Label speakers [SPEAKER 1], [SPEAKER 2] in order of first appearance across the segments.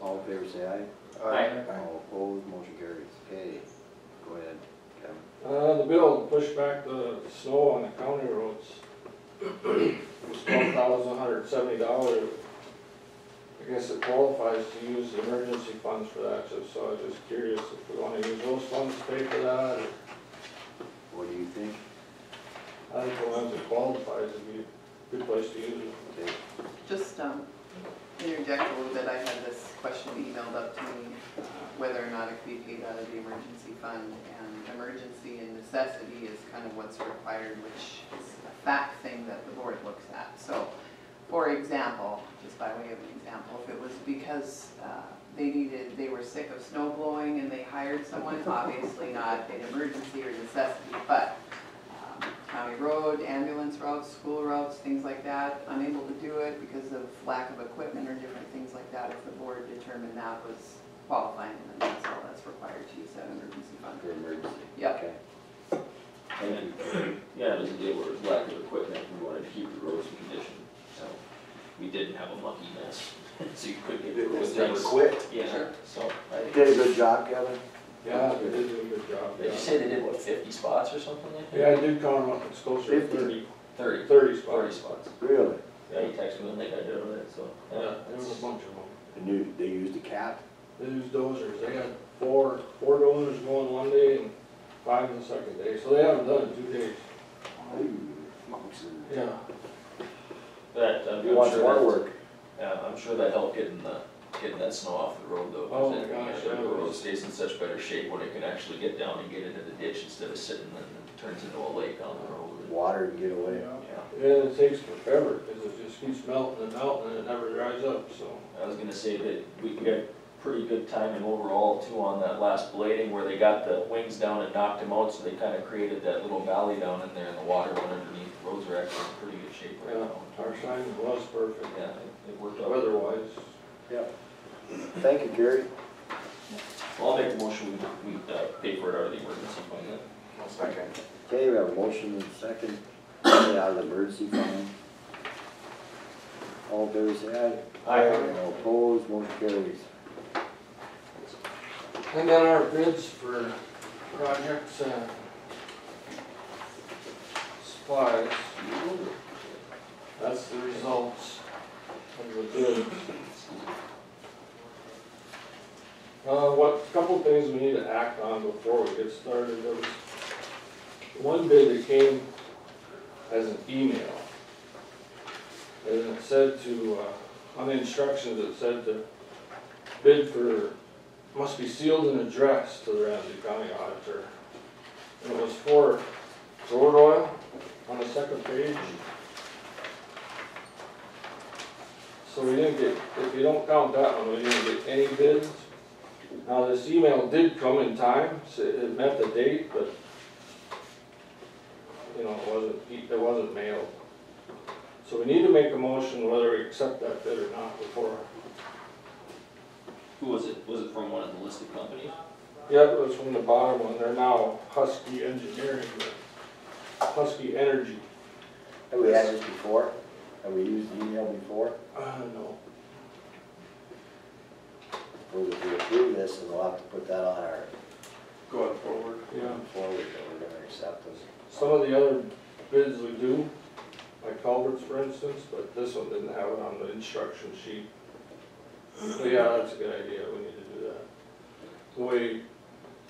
[SPEAKER 1] All in favor, say aye.
[SPEAKER 2] Aye.
[SPEAKER 1] All opposed, motion carries. Okay, go ahead, Kevin.
[SPEAKER 3] Uh, the bill to push back the snow on the county roads was twelve thousand one hundred seventy dollars. I guess it qualifies to use the emergency funds for that, so- so I was just curious if we wanna use those funds to pay for that, or
[SPEAKER 1] What do you think?
[SPEAKER 3] I think the ones that qualifies would be a good place to use it.
[SPEAKER 1] Okay,
[SPEAKER 4] Just um, interject a little bit, I had this question emailed up to me, uh, whether or not it could be paid out of the emergency fund. And emergency and necessity is kind of what's required, which is a fact thing that the board looks at. So, for example, just by way of an example, if it was because uh, they needed, they were sick of snow blowing and they hired someone, obviously not an emergency or necessity, but um, county road, ambulance routes, school routes, things like that, unable to do it because of lack of equipment or different things like that, if the board determined that was qualifying, then that's all that's required to use that emergency fund.
[SPEAKER 1] for emergency.
[SPEAKER 4] Yep.
[SPEAKER 1] Okay. Thank you.
[SPEAKER 2] Yeah, it doesn't deal with lack of equipment, we wanted to keep the roads in condition, so we didn't have a mucky mess, so you could get the
[SPEAKER 5] It
[SPEAKER 2] roads
[SPEAKER 5] was never
[SPEAKER 2] nice.
[SPEAKER 5] quit.
[SPEAKER 2] Yeah,
[SPEAKER 4] Sure.
[SPEAKER 2] so I think.
[SPEAKER 1] Did a good job, Kevin.
[SPEAKER 3] Yeah, they did do a good job,
[SPEAKER 2] Did you
[SPEAKER 3] yeah.
[SPEAKER 2] say they did, what, fifty spots or something like that?
[SPEAKER 3] Yeah, I did count them up, it's closer to
[SPEAKER 1] Fifty.
[SPEAKER 3] thirty,
[SPEAKER 2] Thirty.
[SPEAKER 3] thirty
[SPEAKER 2] Forty spots.
[SPEAKER 3] spots.
[SPEAKER 1] Really?
[SPEAKER 2] Yeah, you texted me when they got done with it, so.
[SPEAKER 3] Yeah, there was a
[SPEAKER 2] that's-
[SPEAKER 3] bunch of them.
[SPEAKER 1] They knew, they used a cap?
[SPEAKER 3] They use dozers, they had four, four dozers going one day and five the second day, so they haven't done it in two days. Yeah.
[SPEAKER 2] That, uh, I'm I'm
[SPEAKER 1] You want
[SPEAKER 2] sure
[SPEAKER 1] more
[SPEAKER 2] that-
[SPEAKER 1] work?
[SPEAKER 2] Yeah, I'm sure that helped getting the, getting that snow off the road though. 'cause
[SPEAKER 3] Oh my
[SPEAKER 2] then,
[SPEAKER 3] gosh,
[SPEAKER 2] you know,
[SPEAKER 3] that
[SPEAKER 2] The road
[SPEAKER 3] was-
[SPEAKER 2] stays in such better shape when it can actually get down and get into the ditch instead of sitting and it turns into a lake on the road.
[SPEAKER 1] Water and get away.
[SPEAKER 3] Yeah,
[SPEAKER 2] Yeah,
[SPEAKER 3] it takes forever, cause it just keeps melting and melting and it never dries up, so.
[SPEAKER 2] I was gonna say that we we got pretty good timing overall too on that last blading where they got the wings down and knocked them out, so they kinda created that little valley down in there and the water went underneath. The Roads are actually in pretty good shape right
[SPEAKER 3] Yeah,
[SPEAKER 2] now.
[SPEAKER 3] our sign was perfect,
[SPEAKER 2] Yeah, it- it worked out.
[SPEAKER 3] weather-wise.
[SPEAKER 1] Thank you, Gary.
[SPEAKER 2] Well, I'll make a motion, we, we uh, pay for it out of the emergency fund then.
[SPEAKER 5] One second.
[SPEAKER 1] Okay, we have a motion and a second, get out of the emergency fund. All in favor, say aye. All opposed, motion carries.
[SPEAKER 3] And then our bids for projects and supplies. That's the results of the bids. Uh, what, couple things we need to act on before we get started, there was one bid that came as an email. And it said to, uh, on the instructions, it said to bid for must be sealed and addressed to the Ramsey County Auditor. And it was for road oil on the second page. So we didn't get, if you don't count that one, we didn't get any bids. Now, this email did come in time, so it met the date, but, you know, it wasn't, e, it wasn't mailed. So we need to make a motion whether we accept that bid or not before
[SPEAKER 2] Who was it? Was it from one of the listed companies?
[SPEAKER 3] Yeah, it was from the bottom one, they're now Husky Engineering, or Husky Energy.
[SPEAKER 1] Have we had this before? Have we used email before?
[SPEAKER 3] Uh, no,
[SPEAKER 1] Well, If we approve this, then we'll have to put that on our
[SPEAKER 5] Going forward.
[SPEAKER 3] yeah,
[SPEAKER 1] forward that we're gonna accept this.
[SPEAKER 3] some of the other bids we do, like culverts for instance, but this one didn't have it on the instruction sheet. But yeah, that's a good idea, we need to do that. The way,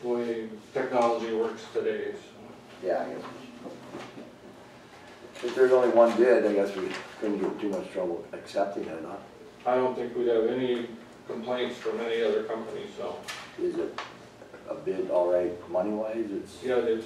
[SPEAKER 3] the way technology works today, so.
[SPEAKER 1] Yeah, I guess. we should. If there's only one bid, I guess we couldn't get in too much trouble accepting it, huh?
[SPEAKER 3] I don't think we'd have any complaints from any other company, so,
[SPEAKER 1] Is it a bid all right money-wise? It's,
[SPEAKER 3] yeah, it is.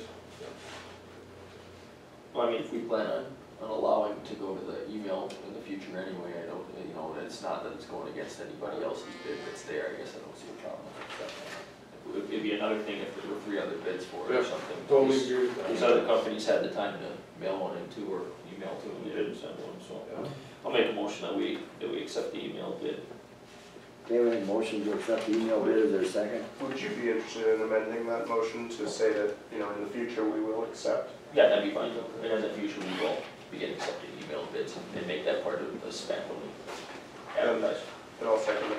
[SPEAKER 2] Well, I mean, if we plan on, on allowing to go to the email in the future anyway, I don't, you know, it's not that it's going against anybody else's bid that's there, I guess I don't see a problem with accepting it. It would- It'd be another thing if there were three other bids for it or
[SPEAKER 3] Yeah,
[SPEAKER 2] something.
[SPEAKER 3] Totally
[SPEAKER 2] These-
[SPEAKER 3] agree with that.
[SPEAKER 2] These other companies had the time to mail one in too, or email two, and they didn't send one, so.
[SPEAKER 3] Yeah.
[SPEAKER 2] I'll make a motion that we, that we accept the email bid.
[SPEAKER 1] okay, we have a motion to accept the email bid, is there a second?
[SPEAKER 5] Would you be interested in amending that motion to say that, you know, in the future, we will accept?
[SPEAKER 2] Yeah, that'd be fine, and in the future, we will begin accepting email bids and make that part of the spec when we advertise.
[SPEAKER 5] And I'll second that.